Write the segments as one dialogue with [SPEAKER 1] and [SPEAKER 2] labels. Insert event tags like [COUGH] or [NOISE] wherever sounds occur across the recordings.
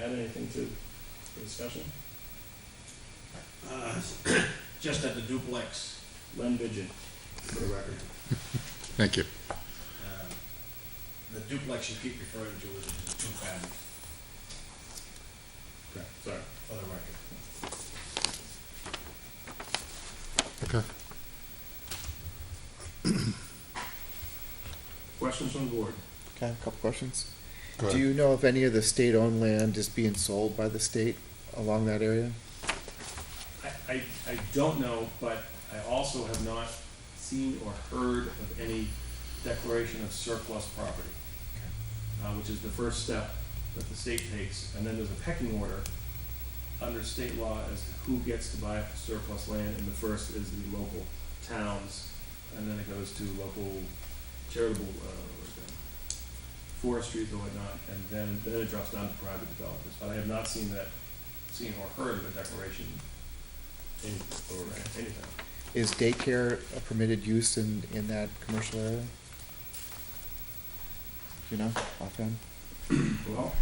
[SPEAKER 1] to, for discussion?
[SPEAKER 2] Uh, [COUGHS] Just at the duplex,
[SPEAKER 1] Len Bidget, for the record.
[SPEAKER 3] Thank you.
[SPEAKER 2] uh, the duplex you keep referring to is the two-family,
[SPEAKER 1] Correct. Sorry.
[SPEAKER 2] for the record.
[SPEAKER 3] Okay.
[SPEAKER 1] Questions from the board?
[SPEAKER 4] Can I have a couple questions?
[SPEAKER 3] Go
[SPEAKER 4] Do
[SPEAKER 3] ahead.
[SPEAKER 4] you know if any of the state-owned land is being sold by the state along that area?
[SPEAKER 1] I, I, I don't know, but I also have not seen or heard of any declaration of surplus property, uh, which is the first step that the state takes, and then there's a pecking order under state law as to who gets to buy surplus land, and the first is the local towns, and then it goes to local charitable, uh, what is that, forestries or whatnot, and then, then it drops down to private developers, but I have not seen that, seen or heard of a declaration in, or anything.
[SPEAKER 4] Is daycare a permitted use in, in that commercial area? Do you know, offhand?
[SPEAKER 1] Well,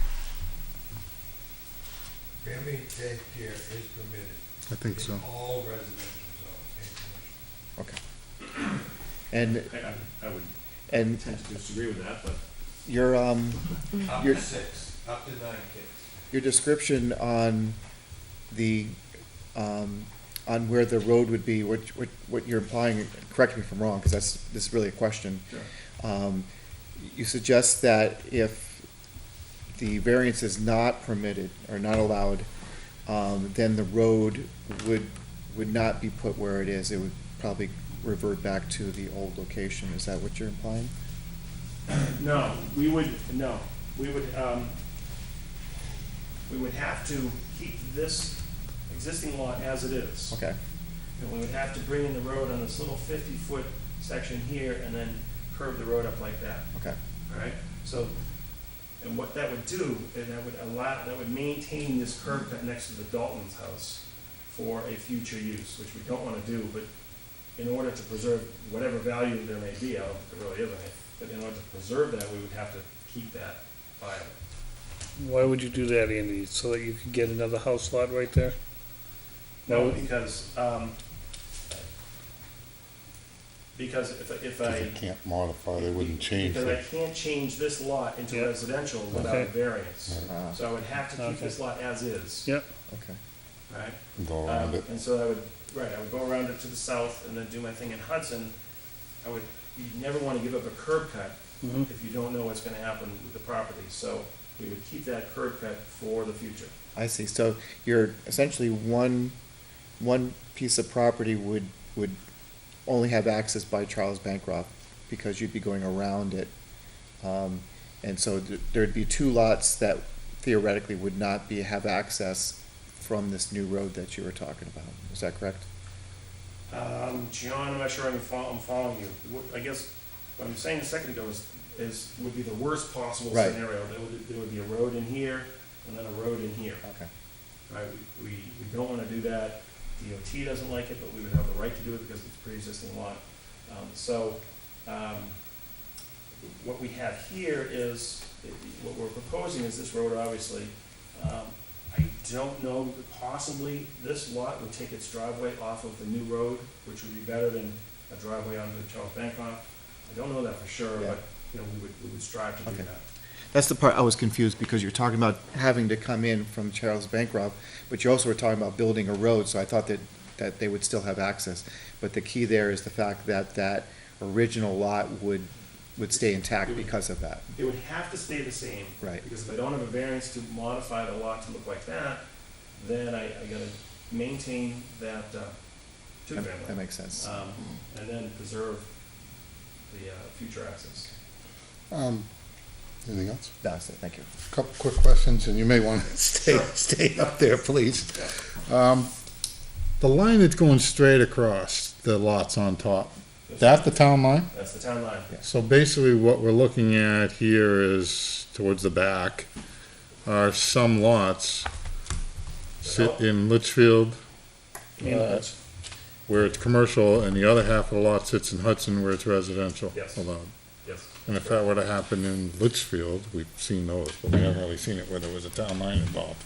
[SPEAKER 5] Family daycare is permitted.
[SPEAKER 3] I think so.
[SPEAKER 5] In all residential zones, and commercial.
[SPEAKER 4] Okay. And,
[SPEAKER 1] I, I, I would
[SPEAKER 4] and
[SPEAKER 1] tend to disagree with that, but
[SPEAKER 4] your, um,
[SPEAKER 5] Up
[SPEAKER 4] You're-
[SPEAKER 5] to six, up to nine kids.
[SPEAKER 4] your description on the, um, on where the road would be, what, what, what you're implying, correct me if I'm wrong, because that's, this is really a question.
[SPEAKER 1] sure.
[SPEAKER 4] Um, You suggest that if the variance is not permitted or not allowed, um, then the road would, would not be put where it is. It would probably revert back to the old location. Is that what you're implying?
[SPEAKER 1] No, we would, no, we would, um, we would have to keep this existing lot as it is.
[SPEAKER 4] Okay,
[SPEAKER 1] And we would have to bring in the road on this little fifty-foot section here and then curve the road up like that.
[SPEAKER 4] okay.
[SPEAKER 1] Alright, so, and what that would do, and that would allow, that would maintain this curb cut next to the Dalton's house for a future use, which we don't wanna do, but in order to preserve whatever value there may be, I don't think there really is any, but in order to preserve that, we would have to keep that viable.
[SPEAKER 6] Why would you do that, Andy? So that you could get another house lot right there?
[SPEAKER 1] No,
[SPEAKER 6] No.
[SPEAKER 1] because, um, because if, if I.
[SPEAKER 3] They can't modify, they wouldn't change
[SPEAKER 1] Because I
[SPEAKER 3] it.
[SPEAKER 1] can't change this lot
[SPEAKER 6] Yeah.
[SPEAKER 1] into residential without a
[SPEAKER 6] Okay.
[SPEAKER 1] variance,
[SPEAKER 4] Uh,
[SPEAKER 1] so I would have to keep
[SPEAKER 6] Okay.
[SPEAKER 1] this lot as is.
[SPEAKER 6] Yep.
[SPEAKER 4] Okay.
[SPEAKER 1] Right?
[SPEAKER 3] Go
[SPEAKER 4] uh,
[SPEAKER 1] Um,
[SPEAKER 3] around it.
[SPEAKER 1] and so I would, right, I would go around it to the south and then do my thing in Hudson. I would, you never want to give up a curb cut
[SPEAKER 6] Mm-hmm.
[SPEAKER 1] if you don't know what's going to happen with the property. So we would keep that curb cut for the future.
[SPEAKER 4] I see. So you're essentially one, one piece of property would, would only have access by Charles Bancroft because you'd be going around it. Um, and so th- there'd be two lots that theoretically would not be, have access from this new road that you were talking about. Is that correct?
[SPEAKER 1] Um, John, I'm not sure I'm following, I'm following you. What- I guess what I'm saying a second ago is, is, would be the worst possible
[SPEAKER 4] Right.
[SPEAKER 1] scenario. There would, there would be a road in here and then a road in here.
[SPEAKER 4] Okay.
[SPEAKER 1] right? We, we we don't want to do that. DOT doesn't like it, but we would have the right to do it because it's a pre-existing lot. Um, So, um, what we have here is, what we're proposing is this road, obviously. Um, I don't know, possibly this lot would take its driveway off of the new road, which would be better than a driveway onto Charles Bancroft. I don't know that for sure,
[SPEAKER 4] Yeah.
[SPEAKER 1] but, you know, we would, we would strive to do
[SPEAKER 4] Okay.
[SPEAKER 1] that.
[SPEAKER 4] That's the part I was confused because you're talking about having to come in from Charles Bancroft, but you also were talking about building a road, so I thought that, that they would still have access. But the key there is the fact that that original lot would, would stay intact because of that.
[SPEAKER 1] It would have to stay the same.
[SPEAKER 4] Right.
[SPEAKER 1] Because if I don't have a variance to modify the lot to look like that, then I, I gotta maintain that, uh,
[SPEAKER 4] That that
[SPEAKER 1] two-family.
[SPEAKER 4] makes sense.
[SPEAKER 1] Um, and then preserve the, uh, future access.
[SPEAKER 3] Um, anything else?
[SPEAKER 4] That's it, thank you.
[SPEAKER 3] Couple quick questions, and you may want to [LAUGHS] stay, stay up there, please. Um, the line that's going straight across the lots on top, that the town line?
[SPEAKER 1] That's the town line.
[SPEAKER 3] So basically what we're looking at here is towards the back are some lots sit in Litchfield.
[SPEAKER 6] And
[SPEAKER 3] uh,
[SPEAKER 6] Hudson.
[SPEAKER 3] Where it's commercial and the other half of the lot sits in Hudson where it's residential
[SPEAKER 1] Yes.
[SPEAKER 3] allowed.
[SPEAKER 1] Yes.
[SPEAKER 3] And if that were to happen in Litchfield, we've seen those, but we haven't really seen it where there was a town line involved.